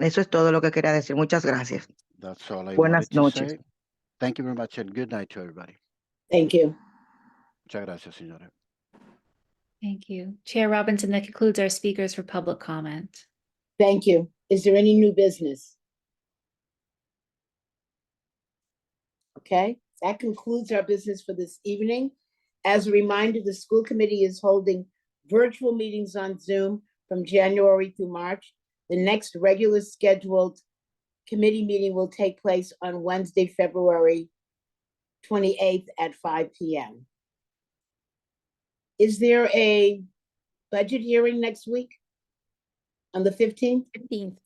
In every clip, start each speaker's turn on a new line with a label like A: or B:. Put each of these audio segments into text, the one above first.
A: Eso es todo lo que quería decir. Muchas gracias.
B: That's all I
A: Buenas
B: wanted to
A: noches.
B: say. Thank you very much and good night to everybody.
C: Thank you.
B: Muchas gracias, señora.
D: Thank you. Chair Robinson, that concludes our speakers for public comment.
C: Thank you. Is there any new business? Okay, that concludes our business for this evening. As a reminder, the school committee is holding virtual meetings on Zoom from January through March. The next regular scheduled committee meeting will take place on Wednesday, February 28th at 5 PM. Is there a budget hearing next week? On the 15th?
E: Fifteenth,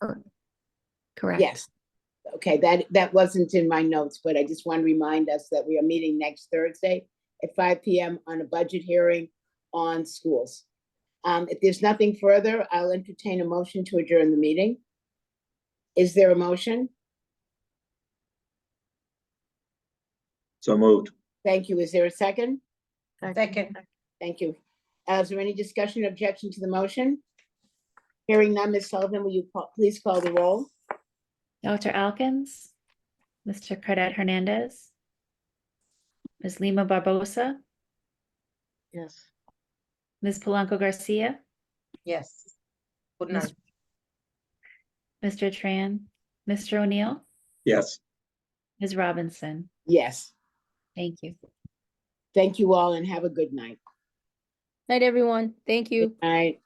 D: Correct.
C: Yes. Okay, that, that wasn't in my notes, but I just want to remind us that we are meeting next Thursday at five PM on a budget hearing on schools. Um, if there's nothing further, I'll entertain a motion to adjourn the meeting. Is there a motion?
F: So moved.
C: Thank you. Is there a second?
G: Second.
C: Thank you. Uh, Is there any discussion or objection to the motion? Hearing none, Ms. Sullivan, will you call- please call the roll?
D: Dr. Alkins, Mr. Cadet Hernandez, Ms. Lima Barbosa,
G: Yes.
D: Ms. Polanco Garcia,
G: Yes. Good
D: Miss-
G: night.
D: Mr. Tran, Mr. O'Neill,
F: Yes.
D: Ms. Robinson.
C: Yes,
D: Thank you.
C: thank you all and have a good night.
E: night, everyone. Thank you.
C: Good night.